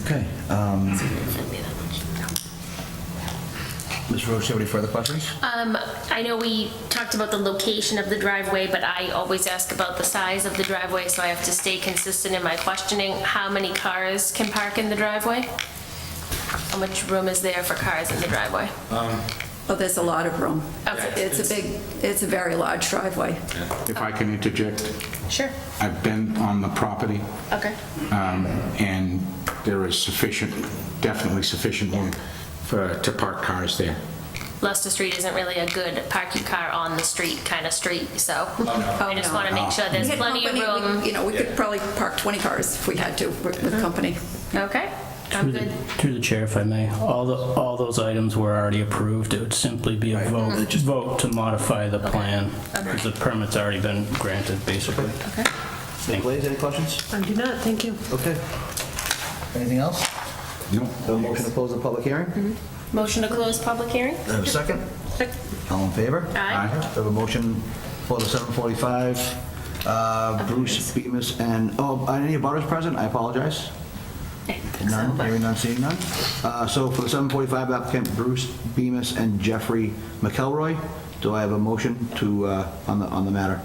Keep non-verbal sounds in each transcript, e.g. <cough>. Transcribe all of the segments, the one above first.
Okay. um, Ms. Roach, you have any further questions? Um, I know we talked about the location of the driveway, but I always ask about the size of the driveway, so I have to stay consistent in my questioning. How many cars can park in the driveway? How much room is there for cars in the driveway? Oh, there's a lot of room. Okay. It's a big, it's a very large driveway. If I can interject, Sure. I've been on the property, Okay. um, and there is sufficient, definitely sufficient room for, to park cars there. Leicester Street isn't really a good park your car on the street kind of street, so I just want to make sure there's We had plenty of company, we- room. You know, we could probably park 20 cars if we had to with with company. Okay, I'm Through the, good. through the chair, if I may, all the, all those items were already approved. It would simply be a vote, vote to modify the plan. because The permit's already been granted, basically. Ms. Blaze, any questions? I do not, thank you. Okay. Anything else? No? So motion to close the public hearing? Do Motion to close public hearing? I have a second? All in favor? Aye. I have a motion for the 7:45. uh, Bruce Bemis and, oh, are any abutters present? I apologize. None, hearing none, seeing none. Uh, So for the 7:45 applicant Bruce Bemis and Jeffrey McElroy, do I have a motion to, uh, on the, on the matter?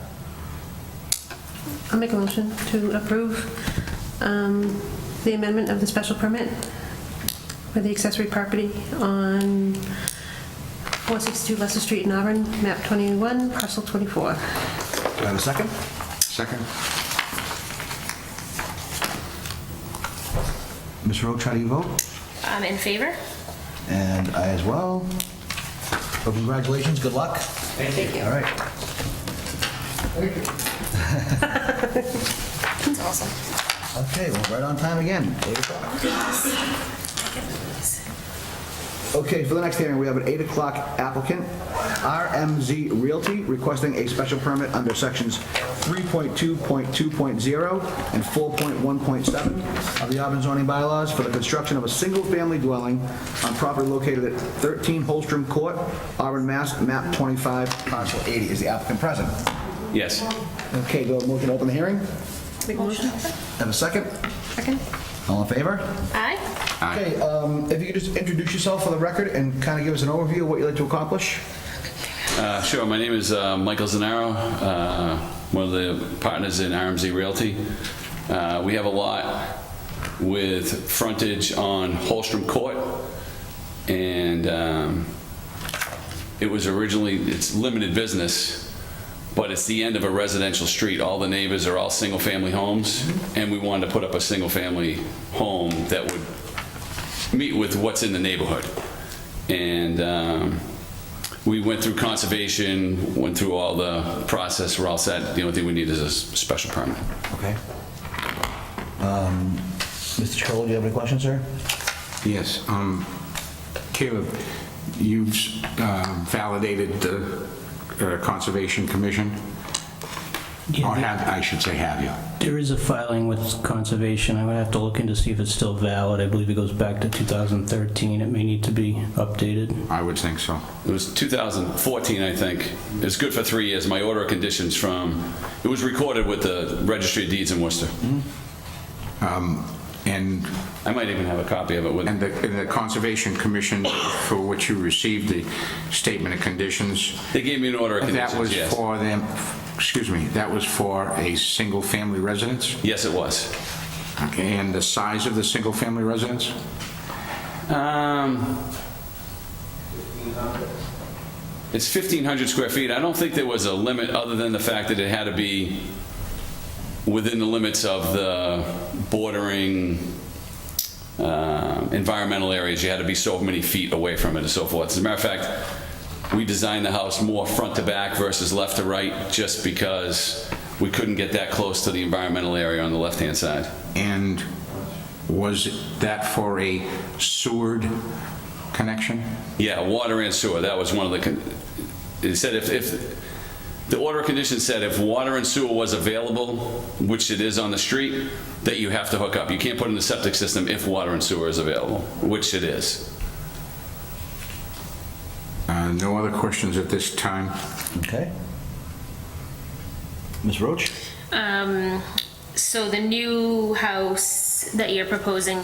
I'll make a motion to approve um, the amendment of the special permit for the accessory property on 462 Leicester Street in Auburn, map 21, parcel 24. Do I have a second? Second? Ms. Roach, how do you vote? I'm Um, in favor. And I as well. Well, congratulations, good luck. Thank you. All right. <laughs> That's awesome. Okay, well, right on time again, 8 o'clock. Okay, for the next hearing, we have an 8 o'clock applicant, RMZ Realty, requesting a special permit under sections 3.2.2.0 and 4.1.7 of the Auburn zoning bylaws for the construction of a single-family dwelling on property located at 13 Holstrom Court, Auburn, Mass., map 25, parcel 80. Is the applicant present? Yes. Okay, do I have a motion to open the hearing? Make a motion? Have a second? Second? All in favor? Aye. Okay, um, if you could just introduce yourself for the record and kind of give us an overview of what you'd like to accomplish? Uh, Sure, my name is uh, Michael Zanaro, uh, one of the partners in RMZ Realty. Uh, We have a lot with frontage on Holstrom Court, and um, it was originally, it's limited business, but it's the end of a residential street. All the neighbors are all single-family homes, and we wanted to put up a single-family home that would meet with what's in the neighborhood. And um, we went through conservation, went through all the process, we're all set. The only thing we need is a s- special permit. Okay. Um, Mr. Chacolo, do you have any questions, sir? Yes. um, Caleb, you've uh, validated the uh, Conservation Commission? Yeah, Or the- have, I should say, have you? There is a filing with conservation. I would have to look into see if it's still valid. I believe it goes back to 2013. It may need to be updated. I would think so. It was 2014, I think. It's good for three years. My order of conditions from, it was recorded with the Registry of Deeds in Worcester. Mm-hmm. And I might even have a copy of it with, And the, and the Conservation Commission, for which you received the statement of conditions, they gave me an order of that was conditions, yes. for them, excuse me, that was for a single-family residence? Yes, it was. Okay, and the size of the single-family residence? Um, It's 1,500 square feet. I don't think there was a limit, other than the fact that it had to be within the limits of the bordering uh, environmental areas. You had to be so many feet away from it and so forth. As a matter of fact, we designed the house more front to back versus left to right, just because we couldn't get that close to the environmental area on the left-hand side. And was that for a Seward connection? Yeah, water and sewer, that was one of the, con- it said if, if, the order of conditions said if water and sewer was available, which it is on the street, that you have to hook up. You can't put in the septic system if water and sewer is available, which it is. Uh, No other questions at this time? Okay. Ms. Roach? Um, so the new house that you're proposing